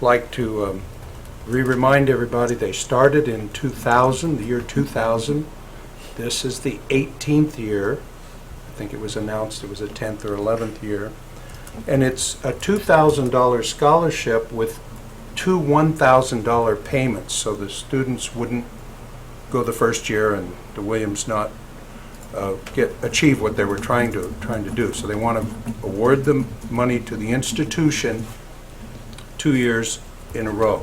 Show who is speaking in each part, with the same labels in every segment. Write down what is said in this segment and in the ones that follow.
Speaker 1: like to um, re-remind everybody, they started in 2000, the year 2000. This is the 18th year. I think it was announced it was the 10th or 11th year. And it's a $2,000 scholarship with two $1,000 payments, so the students wouldn't go the first year and the Williams not uh, get, achieve what they were trying to, trying to do. So they want to award the money to the institution two years in a row.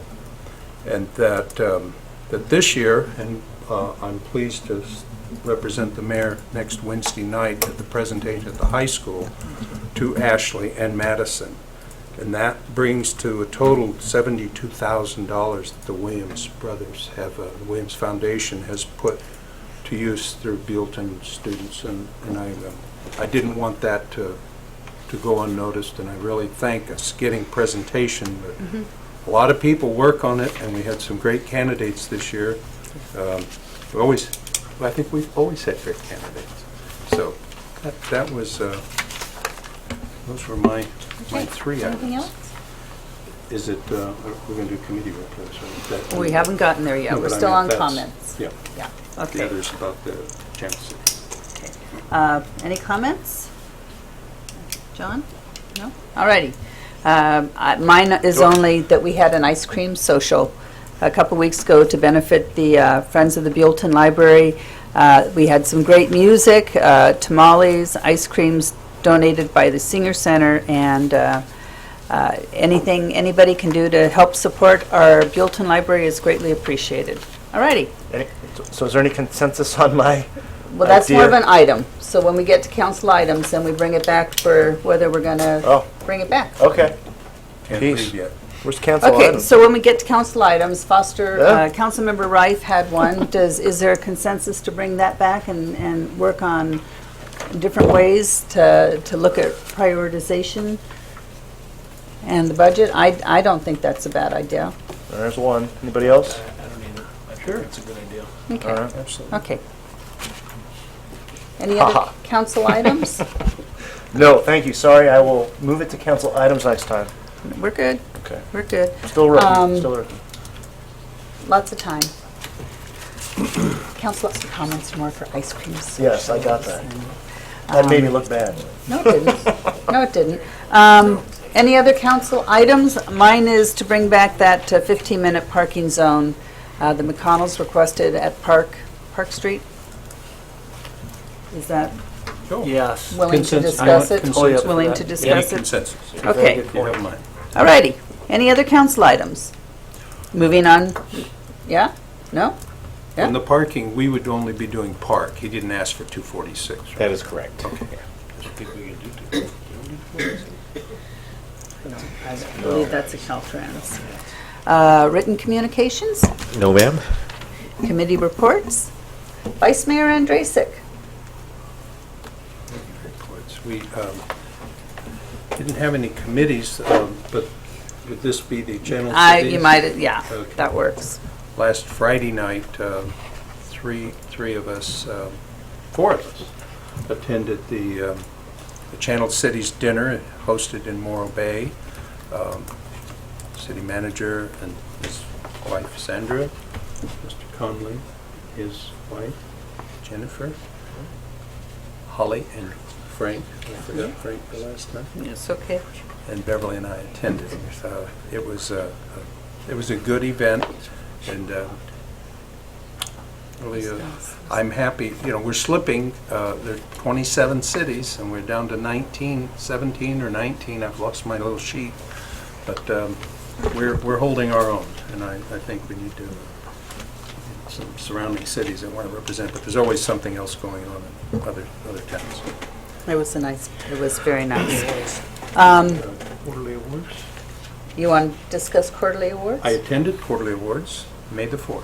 Speaker 1: And that, um, that this year, and uh, I'm pleased to s- represent the mayor next Wednesday night at the presentation at the high school to Ashley and Madison. And that brings to a total $72,000 that the Williams brothers have, uh, the Williams Foundation has put to use through Buellton students. And and I, um, I didn't want that to, to go unnoticed, and I really thank us getting presentation.
Speaker 2: Mm-hmm.
Speaker 1: but A lot of people work on it, and we had some great candidates this year. Um, We always, I think we've always had great candidates. So that, that was, uh, those were my, my
Speaker 2: Okay.
Speaker 1: three items.
Speaker 2: Anything else?
Speaker 1: Is it, uh, we're going to do committee reports? or is that-
Speaker 2: We haven't gotten there yet.
Speaker 1: No,
Speaker 2: We're
Speaker 1: but I
Speaker 2: still
Speaker 1: mean,
Speaker 2: on
Speaker 1: that's-
Speaker 2: comments.
Speaker 1: Yeah,
Speaker 2: Yeah,
Speaker 1: the
Speaker 2: okay.
Speaker 1: others about the Champs.
Speaker 2: okay. Uh, Any comments? John? No? All righty. Um, I- Mine is only that we had an ice cream social a couple weeks ago to benefit the uh, Friends of the Buellton Library. Uh, We had some great music, uh, tamales, ice creams donated by the Singer Center, and uh, uh, anything anybody can do to help support our Buellton Library is greatly appreciated. All righty.
Speaker 3: Any- So is there any consensus on my?
Speaker 2: Well, that's more of
Speaker 3: idea?
Speaker 2: an item. So when we get to council items, then we bring it back for whether we're going to
Speaker 3: Oh.
Speaker 2: bring it back.
Speaker 3: Okay,
Speaker 1: Can't
Speaker 3: Peace.
Speaker 1: read yet.
Speaker 3: where's council
Speaker 2: Okay,
Speaker 3: item?
Speaker 2: so when we get to council items, Foster, uh,
Speaker 3: Yeah.
Speaker 2: Councilmember Rife had one. Does, is there a consensus to bring that back and, and work on different ways to, to look at prioritization and the budget? I, I don't think that's a bad idea.
Speaker 3: There's one. Anybody else?
Speaker 4: I don't either. I think that's a good idea.
Speaker 3: All
Speaker 2: Okay,
Speaker 3: right.
Speaker 1: Absolutely.
Speaker 2: okay. Any other
Speaker 3: Ha-ha.
Speaker 2: council items?
Speaker 3: No, thank you, sorry, I will move it to council items next time.
Speaker 2: We're good,
Speaker 3: Okay.
Speaker 2: we're good.
Speaker 3: Still
Speaker 2: Um,
Speaker 3: rookie, still rookie.
Speaker 2: Lots of time. Council, lots of comments more for ice cream.
Speaker 3: Yes, I got that.
Speaker 2: socials and-
Speaker 3: That made me look bad.
Speaker 2: No, it didn't. No, it didn't. Um, Any other council items? Mine is to bring back that 15-minute parking zone uh, the McConnells requested at Park, Park Street. Is that
Speaker 4: Yes.
Speaker 2: willing to
Speaker 1: Consensus. I
Speaker 2: discuss
Speaker 1: want
Speaker 2: it?
Speaker 1: consensus for
Speaker 2: Willing
Speaker 1: that.
Speaker 2: to
Speaker 1: Any
Speaker 2: discuss it?
Speaker 1: consensus? if
Speaker 2: Okay.
Speaker 1: you don't mind.
Speaker 2: All righty. Any other council items? Moving on, yeah? No? Yeah.
Speaker 1: On the parking, we would only be doing park. He didn't ask for 246. right?
Speaker 5: That is correct.
Speaker 2: I believe that's a Caltrans. Uh, Written communications?
Speaker 5: No, ma'am?
Speaker 2: Committee reports. Vice Mayor Andrasik.
Speaker 1: reports. We um, didn't have any committees, um, but would this be the general?
Speaker 2: I,
Speaker 1: cities?
Speaker 2: you might, yeah,
Speaker 1: Okay.
Speaker 2: that works.
Speaker 1: Last Friday night, um, three, three of us, um, four of us, attended the um, the Channel Cities Dinner hosted in Morro Bay. Um, City manager and his wife Sandra, Mr. Conley, his wife Jennifer, Holly and Frank, I forgot Frank the last time
Speaker 2: It's okay.
Speaker 1: and Beverly and I attended. So it was a, it was a good event, and uh, really, uh, I'm happy, you know, we're slipping, uh, there are 27 cities, and we're down to 19, 17 or 19, I've lost my little sheet, but um, we're, we're holding our own, and I, I think we need to, some surrounding cities that want to represent, but there's always something else going on in other, other towns.
Speaker 2: It was a nice, it was very nice. Um,
Speaker 1: Quarterly awards?
Speaker 2: You want to discuss quarterly awards?
Speaker 1: I attended quarterly awards, May the 4th,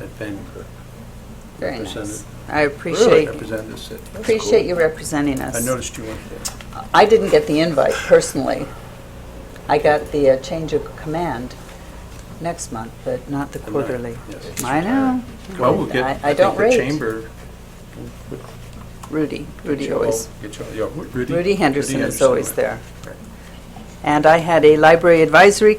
Speaker 1: at Vancouver.
Speaker 2: Very nice.
Speaker 1: represented-
Speaker 2: I
Speaker 1: Really
Speaker 2: appreciate,
Speaker 1: represented the city.
Speaker 2: appreciate you representing
Speaker 1: I
Speaker 2: us.
Speaker 1: noticed you weren't there.
Speaker 2: I didn't get the invite personally. I got the uh, change of command next month, but not the
Speaker 1: The ninth,
Speaker 2: quarterly.
Speaker 1: yes.
Speaker 2: I know.
Speaker 1: Well, we'll
Speaker 2: I-
Speaker 1: get,
Speaker 2: I
Speaker 1: I
Speaker 2: don't
Speaker 1: think
Speaker 2: rate.
Speaker 1: the chamber.
Speaker 2: Rudy, Rudy
Speaker 1: Get
Speaker 2: always.
Speaker 1: your- get your- yeah, Rudy.
Speaker 2: Rudy Henderson is always
Speaker 1: went.
Speaker 2: there.
Speaker 1: Right.
Speaker 2: And I had a library advisory